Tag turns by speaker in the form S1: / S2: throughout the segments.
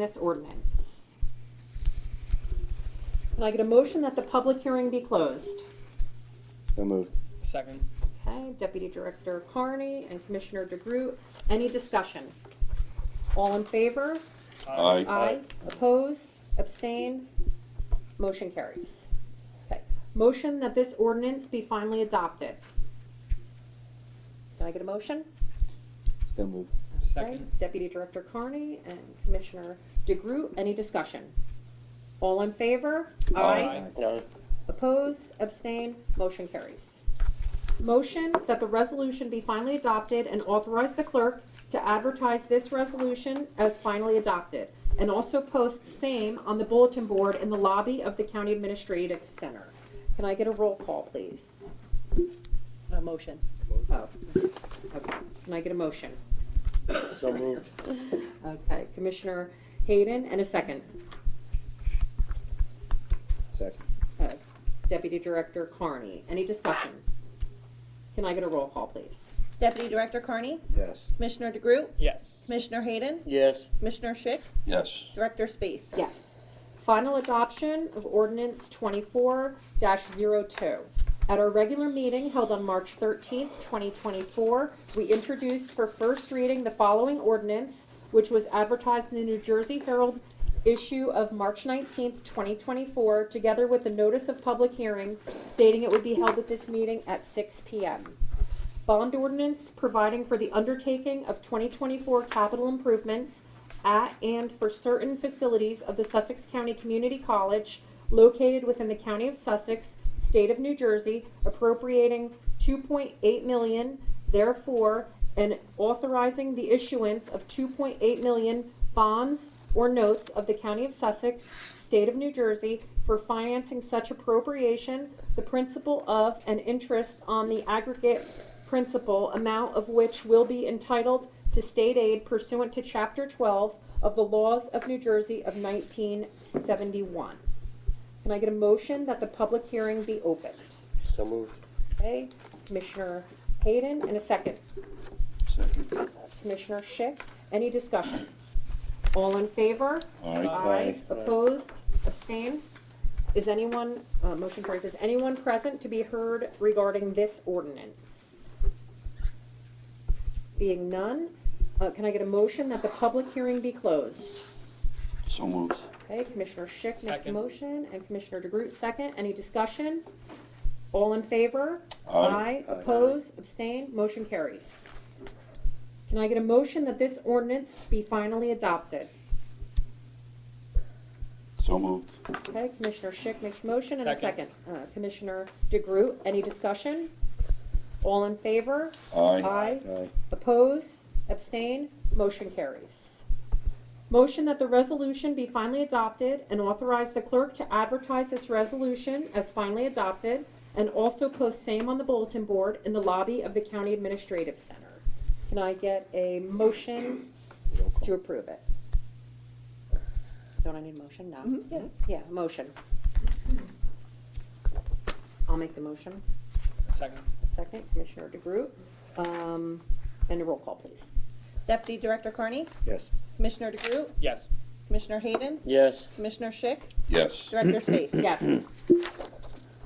S1: this ordinance. Can I get a motion that the public hearing be closed?
S2: So moved.
S3: Second.
S1: Okay, Deputy Director Carney and Commissioner DeGroot, any discussion? All in favor?
S2: Aye.
S1: Aye. Oppose? Abstain? Motion carries. Okay. Motion that this ordinance be finally adopted. Can I get a motion?
S2: So moved.
S1: Okay,
S3: Second.
S1: Deputy Director Carney and Commissioner DeGroot, any discussion? All in favor?
S2: Aye.
S1: Oppose, abstain, motion carries. Motion that the resolution be finally adopted and authorize the clerk to advertise this resolution as finally adopted, and also post same on the bulletin board in the lobby of the County Administrative Center. Can I get a roll call, please?
S4: A motion.
S1: Oh, okay. Can I get a motion?
S2: So moved.
S1: Okay, Commissioner Hayden, and a second.
S2: Second.
S1: Uh, Deputy Director Carney, any discussion? Can I get a roll call, please?
S4: Deputy Director Carney,
S2: Yes.
S4: Commissioner DeGroot,
S3: Yes.
S4: Commissioner Hayden,
S2: Yes.
S4: Commissioner Schick,
S2: Yes.
S4: Director Space.
S1: Yes. Final adoption of ordinance twenty-four 2 At our regular meeting held on March thirteenth, twenty twenty-four, we introduced for first reading the following ordinance, which was advertised in the New Jersey Herald issue of March nineteenth, twenty twenty-four, together with a notice of public hearing stating it would be held at this meeting at six P M. Bond ordinance providing for the undertaking of 2024 capital improvements at and for certain facilities of the Sussex County Community College located within the County of Sussex, State of New Jersey, appropriating 2.8 million therefore and authorizing the issuance of 2.8 million bonds or notes of the County of Sussex, State of New Jersey, for financing such appropriation, the principal of and interest on the aggregate principal amount of which will be entitled to state aid pursuant to Chapter 12 of the laws of New Jersey of 1971. Can I get a motion that the public hearing be opened?
S2: So moved.
S1: Okay, Commissioner Hayden, and a second.
S2: Second.
S1: Commissioner Schick, any discussion? All in favor?
S2: Aye.
S1: Opposed? Abstain? Is anyone, uh, motion carries, is anyone present to be heard regarding this ordinance? Being none, uh, can I get a motion that the public hearing be closed?
S2: So moved.
S1: Okay, Commissioner Schick makes a
S3: Second.
S1: motion, and Commissioner DeGroot second. Any discussion? All in favor?
S2: Aye. Aye.
S1: Oppose, abstain, motion carries. Can I get a motion that this ordinance be finally adopted?
S2: So moved.
S1: Okay, Commissioner Schick makes motion and a second.
S3: Second.
S1: Uh, Commissioner DeGroot, any discussion? All in favor? Aye.
S2: Aye.
S1: Oppose, abstain, motion carries. Motion that the resolution be finally adopted and authorize the clerk to advertise this resolution as finally adopted and also post same on the bulletin board in the lobby of the County Administrative Center. Can I get a motion
S2: Roll call.
S1: to approve it? Don't I need a motion? No?
S4: yeah.
S1: Yeah, motion. I'll make the motion.
S3: Second.
S1: Second, Commissioner DeGroot. Um, And a roll call, please.
S4: Deputy Director Carney,
S2: Yes.
S4: Commissioner DeGroot,
S3: Yes.
S4: Commissioner Hayden,
S2: Yes.
S4: Commissioner Schick,
S2: Yes.
S4: Director Space.
S1: Yes.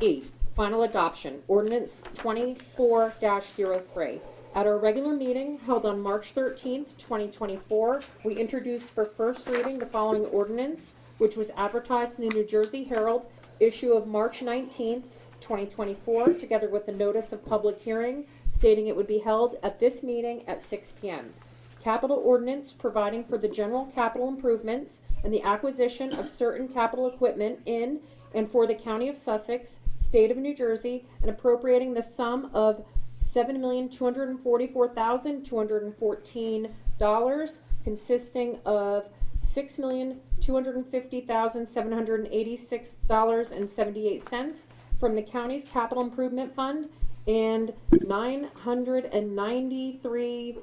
S1: E, final adoption, ordinance twenty-four 3 At our regular meeting held on March thirteenth, twenty twenty-four, we introduced for first reading the following ordinance, which was advertised in the New Jersey Herald, issue of March nineteenth, twenty twenty-four, together with the notice of public hearing stating it would be held at this meeting at six P M. Capital ordinance providing for the general capital improvements and the acquisition of certain capital equipment in and for the county of Sussex, state of New Jersey, and appropriating the sum of seven million two hundred and forty-four thousand two hundred and fourteen dollars, consisting of six million two hundred and fifty thousand seven hundred and eighty-six dollars and seventy-eight cents from the county's capital improvement fund and nine hundred and ninety-three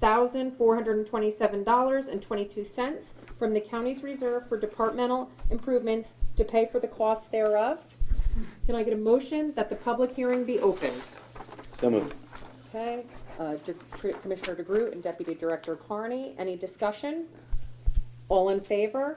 S1: thousand four hundred and twenty-seven dollars and twenty-two cents from the county's reserve for departmental improvements to pay for the costs thereof. Can I get a motion that the public hearing be opened?
S2: So moved.
S1: Okay, uh, De- Commissioner DeGroot and Deputy Director Carney, any discussion? All in favor?